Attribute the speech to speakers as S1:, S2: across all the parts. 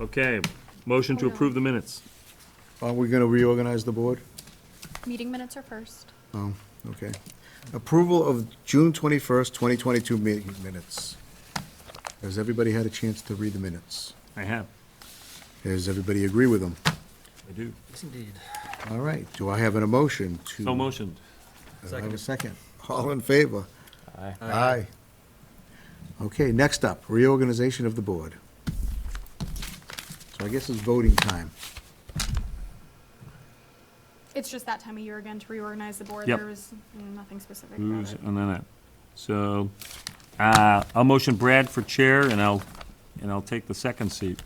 S1: Okay, motion to approve the minutes.
S2: Are we gonna reorganize the board?
S3: Meeting minutes are first.
S2: No, okay. Approval of June twenty-first, twenty twenty-two meeting minutes. Has everybody had a chance to read the minutes?
S1: I have.
S2: Does everybody agree with them?
S1: I do.
S4: Indeed.
S2: All right, do I have an emotion to?
S1: So motioned.
S2: Do I have a second? All in favor?
S4: Aye.
S2: Aye. Okay, next up, reorganization of the board. So I guess it's voting time.
S3: It's just that time of year again to reorganize the board.
S1: Yep.
S3: There was nothing specific about
S1: Who's,
S3: it.
S1: and then it. So, uh, I'll motion Brad for chair, and I'll, and I'll take the second seat.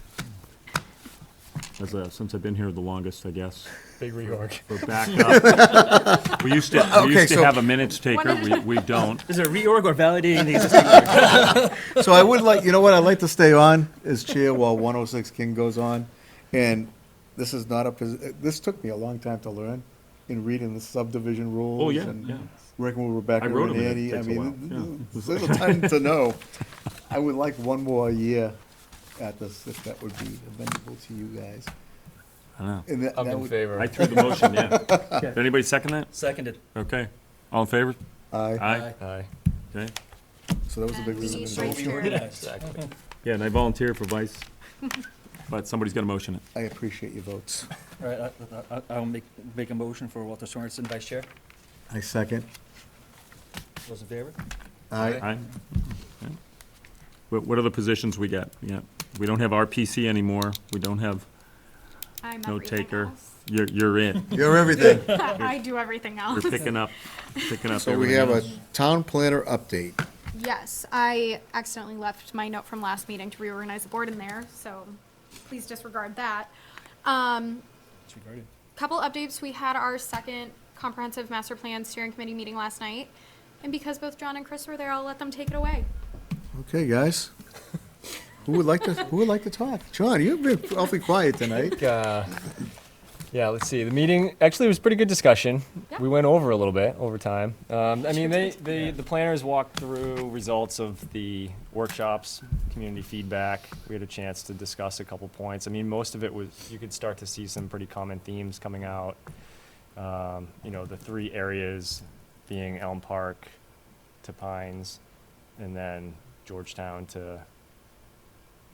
S1: As, uh, since I've been here the longest, I guess,
S4: Big reorg.
S1: for backup. We used to, we
S2: okay,
S1: used to
S2: so-
S1: have a minutes taker,
S3: One
S1: we, we don't.
S4: Is it a reorg or validating the existing? reorg?
S2: So I would like, you know what, I'd like to stay on as chair while 106 King goes on. And this is not a, posi- this took me a long time to learn in reading the subdivision rules.
S1: Oh, yeah,
S2: and
S1: yeah.
S2: Working with Rebecca
S1: I wrote
S2: and
S1: 'em, and
S2: Andy.
S1: it
S2: I
S1: takes a
S2: mean,
S1: while,
S2: th- th- there's little time to know. I would like one more year at this, if that would be amenable to you guys.
S1: I know.
S2: And that-
S5: I'm
S2: that
S5: in
S2: would-
S5: favor.
S1: I threw the motion, yeah. Did anybody second that?
S4: Seconded.
S1: Okay. All in favor?
S2: Aye,
S1: Aye.
S5: Aye.
S1: Okay.
S2: so that was a big
S3: And we
S2: reason.
S3: need
S2: to
S3: vice
S2: vote.
S3: chair.
S5: Exactly.
S1: Yeah, and I volunteer for vice, but somebody's got to motion it.
S2: I appreciate your votes.
S4: All right, I- I- I'll make, make a motion for Walter Sorensen, vice chair.
S2: I second.
S4: Those in favor?
S2: Aye.
S1: Aye. Okay. What, what are the positions we got? Yeah, we don't have RPC anymore. We don't have,
S3: I'm
S1: No
S3: everything
S1: taker.
S3: else.
S1: you're, you're in.
S2: You're everything.
S3: I do everything
S1: You're
S3: else.
S1: picking up, picking up
S2: So we have
S1: everything
S2: a
S1: else.
S2: town planner update.
S3: Yes, I accidentally left my note from last meeting to reorganize the board in there, so please disregard that. Um,
S4: It's regarded.
S3: Couple updates, we had our second comprehensive master plan steering committee meeting last night. And because both John and Chris were there, I'll let them take it away.
S2: Okay, guys. Who would like to, who would like to talk? John, you've been awfully quiet tonight.
S5: Uh, Yeah, let's see. The meeting, actually, it was pretty good discussion.
S3: Yeah.
S5: We went over a little bit, over time. Um, I mean, they, they, the planners walked through results of the workshops, community feedback. We had a chance to discuss a couple points. I mean, most of it was, you could start to see some pretty common themes coming out. Um, You know, the three areas being Elm Park to Pines, and then Georgetown to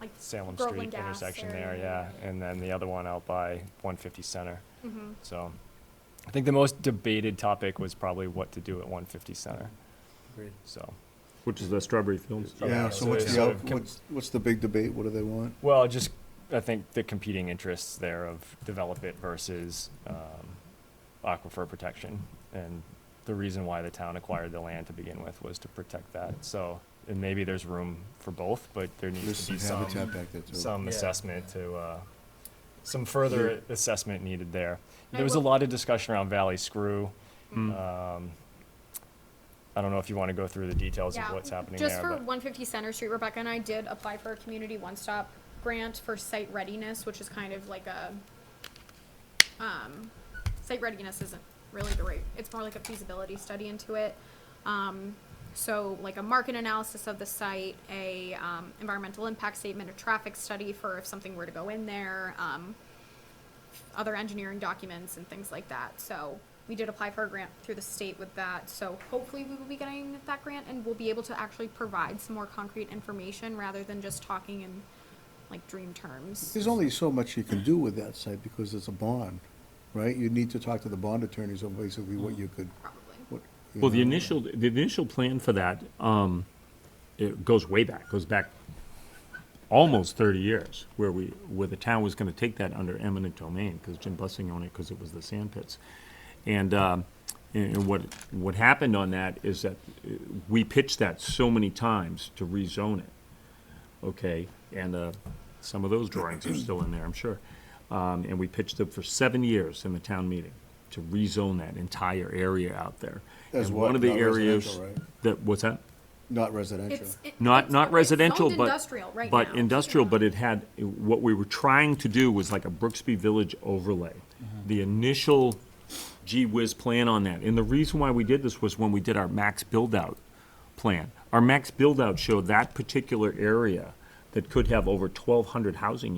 S3: Like,
S5: Salem
S3: Groveland
S5: Street
S3: Gas
S5: intersection there,
S3: area.
S5: yeah, and then the other one out by one fifty center.
S3: mhm.
S5: So I think the most debated topic was probably what to do at one fifty center,
S4: Agreed.
S5: so.
S1: Which is the Strawberry Fields.
S2: Yeah, so what's
S5: it's sort
S2: the,
S5: of
S2: out-
S5: com-
S2: what's, what's the big debate? What do they want?
S5: Well, just, I think the competing interests there of develop it versus, um, aquifer protection. And the reason why the town acquired the land to begin with was to protect that, so, and maybe there's room for both, but there needs to be some.
S2: back there too.
S5: some
S4: Yeah.
S5: assessment to, uh, some further assessment needed there.
S3: I
S5: There was a
S3: will-
S5: lot of discussion around Valley Screw.
S1: Mm.
S5: Um, I don't know if you want to go through the details of
S3: Yeah,
S5: what's happening
S3: Just
S5: there,
S3: for
S5: but
S3: one fifty Center Street, Rebecca and I did apply for a community one-stop grant for site readiness, which is kind of like a, um, site readiness isn't really the right, it's more like a feasibility study into it. Um, so like a market analysis of the site, a, um, environmental impact statement, a traffic study for if something were to go in there, um, other engineering documents and things like that. So we did apply for a grant through the state with that. So hopefully we will be getting that grant and we'll be able to actually provide some more concrete information rather than just talking in like dream terms.
S2: There's only so much you can do with that site because it's a bond, right? You need to talk to the bond attorneys on basically what you could,
S3: Probably.
S2: what.
S1: Well, the
S2: know.
S1: initial, the initial plan for that, um, it goes way back, goes back almost thirty years, where we, where the town was gonna take that under eminent domain, because Jim Bussing owned it, because it was the sand pits. And, um, and and what, what happened on that is that uh, we pitched that so many times to rezone it okay? And uh, some of those drawings are still in there, I'm sure. Um, And we pitched it for seven years in the town meeting to rezone that entire area out there.
S2: As
S1: And
S2: what?
S1: One of the
S2: Not
S1: areas
S2: residential, right?
S1: that, what's that?
S2: Not residential.
S3: It's, it-
S1: Not,
S3: it's-
S1: not
S3: it's zoned
S1: residential, but.
S3: industrial right now.
S1: But industrial, but it had, what we were trying to do was like a Brooksby Village overlay.
S3: Mm-hmm.
S1: The initial gee whiz plan on that. And the reason why we did this was when we did our max build-out plan. Our max build-out showed that particular area that could have over twelve hundred housing